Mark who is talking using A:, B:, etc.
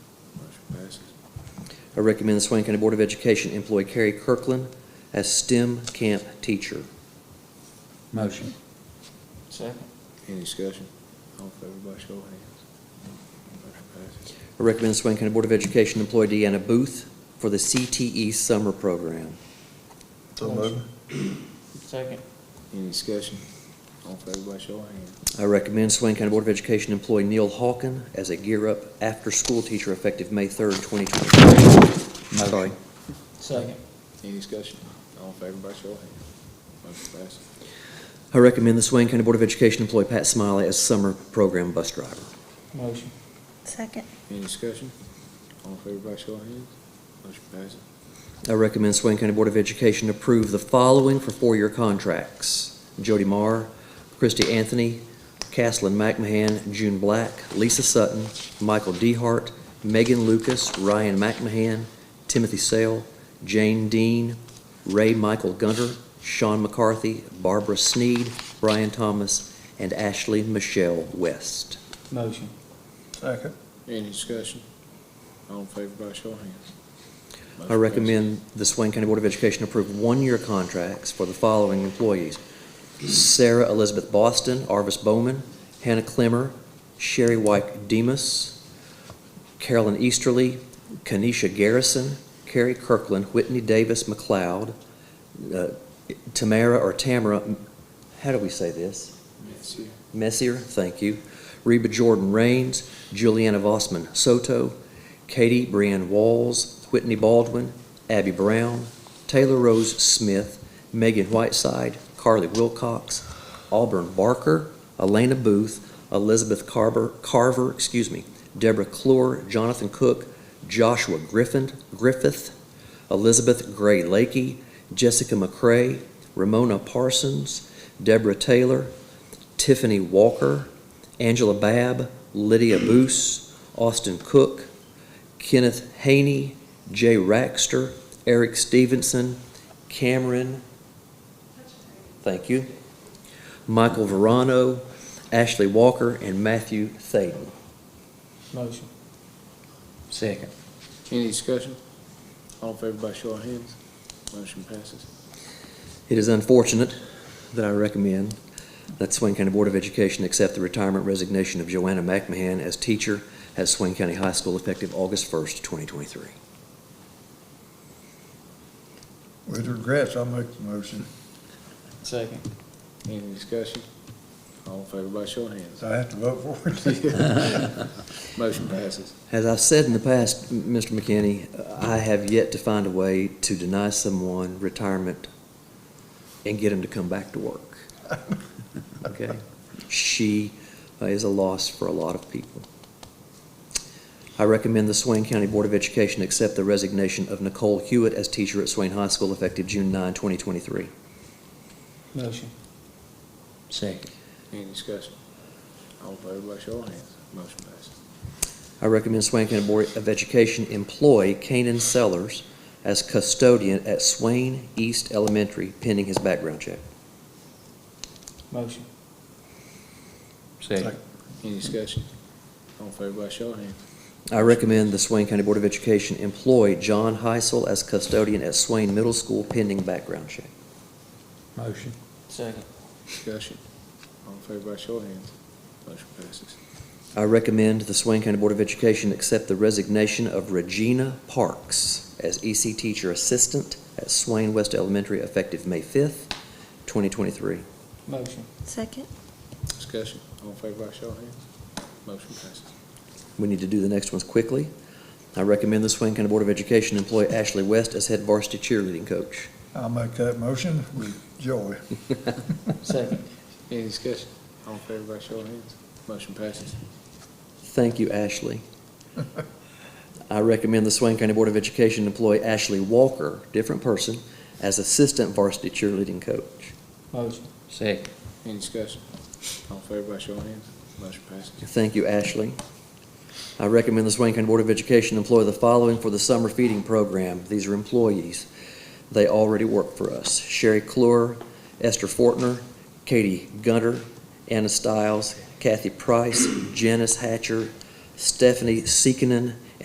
A: I recommend the Swain County Board of Education employ Carrie Kirkland as STEM camp teacher.
B: Motion.
C: Second.
D: Any discussion? All in favor, by show of hands. Motion passes.
A: I recommend the Swain County Board of Education employ Deanna Booth for the CTE summer program.
E: So moved.
C: Second.
D: Any discussion? All in favor, by show of hands.
A: I recommend Swain County Board of Education employ Neil Hawken as a Gear Up after-school teacher effective May 3rd, 2023.
B: Motion.
A: Sorry.
C: Second.
D: Any discussion? All in favor, by show of hands. Motion passes.
A: I recommend the Swain County Board of Education employ Pat Smiley as summer program bus driver.
C: Motion.
F: Second.
D: Any discussion? All in favor, by show of hands. Motion passes.
A: I recommend Swain County Board of Education approve the following for four-year contracts. Jody Marr, Christy Anthony, Caslin McMahon, June Black, Lisa Sutton, Michael Dehart, Megan Lucas, Ryan McMahon, Timothy Sale, Jane Dean, Ray Michael Gunter, Sean McCarthy, Barbara Sneed, Brian Thomas, and Ashley Michelle West.
C: Motion.
E: Second.
D: Any discussion? All in favor, by show of hands.
A: I recommend the Swain County Board of Education approve one-year contracts for the following employees. Sarah Elizabeth Boston, Arvis Bowman, Hannah Clemmer, Sherry White Demus, Carolyn Easterly, Kenesha Garrison, Carrie Kirkland, Whitney Davis McLeod, uh, Tamara or Tamara, how do we say this?
D: Yes, sir.
A: Messier, thank you. Reba Jordan Rains, Juliana Vossman Soto, Katie Brianne Walls, Whitney Baldwin, Abby Brown, Taylor Rose Smith, Megan Whiteside, Carly Wilcox, Auburn Barker, Elena Booth, Elizabeth Carver, Carver, excuse me, Deborah Clore, Jonathan Cook, Joshua Griffin, Griffith, Elizabeth Gray Lakey, Jessica McCray, Ramona Parsons, Deborah Taylor, Tiffany Walker, Angela Babb, Lydia Boos, Austin Cook, Kenneth Haney, Jay Raxter, Eric Stevenson, Cameron, thank you, Michael Verano, Ashley Walker, and Matthew Thaden.
C: Motion.
B: Second.
D: Any discussion? All in favor, by show of hands. Motion passes.
A: It is unfortunate that I recommend that Swain County Board of Education accept the retirement resignation of Joanna McMahon as teacher at Swain County High School effective August 1st, 2023.
E: With regrets, I'll make the motion.
C: Second.
D: Any discussion? All in favor, by show of hands.
E: So I have to vote for it.
D: Motion passes.
A: As I've said in the past, M- Mr. McKinney, I have yet to find a way to deny someone retirement and get them to come back to work. Okay? She uh, is a loss for a lot of people. I recommend the Swain County Board of Education accept the resignation of Nicole Hewitt as teacher at Swain High School effective June 9, 2023.
C: Motion.
B: Second.
D: Any discussion? All in favor, by show of hands. Motion passes.
A: I recommend Swain County Board of Education employ Kanan Sellers as custodian at Swain East Elementary pending his background check.
C: Motion.
B: Second.
D: Any discussion? All in favor, by show of hands.
A: I recommend the Swain County Board of Education employ John Heisel as custodian at Swain Middle School pending background check.
B: Motion.
C: Second.
D: Discussion? All in favor, by show of hands. Motion passes.
A: I recommend the Swain County Board of Education accept the resignation of Regina Parks as EC Teacher Assistant at Swain West Elementary effective May 5th, 2023.
C: Motion.
F: Second.
D: Discussion? All in favor, by show of hands. Motion passes.
A: We need to do the next ones quickly. I recommend the Swain County Board of Education employ Ashley West as head varsity cheerleading coach.
E: I'll make that motion with joy.
C: Second.
D: Any discussion? All in favor, by show of hands. Motion passes.
A: Thank you, Ashley. I recommend the Swain County Board of Education employ Ashley Walker, different person, as assistant varsity cheerleading coach.
C: Motion.
B: Second.
D: Any discussion? All in favor, by show of hands. Motion passes.
A: Thank you, Ashley. I recommend the Swain County Board of Education employ the following for the summer feeding program. These are employees. They already work for us. Sherry Clure, Esther Fortner, Katie Gunter, Anna Stiles, Kathy Price, Janice Hatcher, Stephanie Seekinen,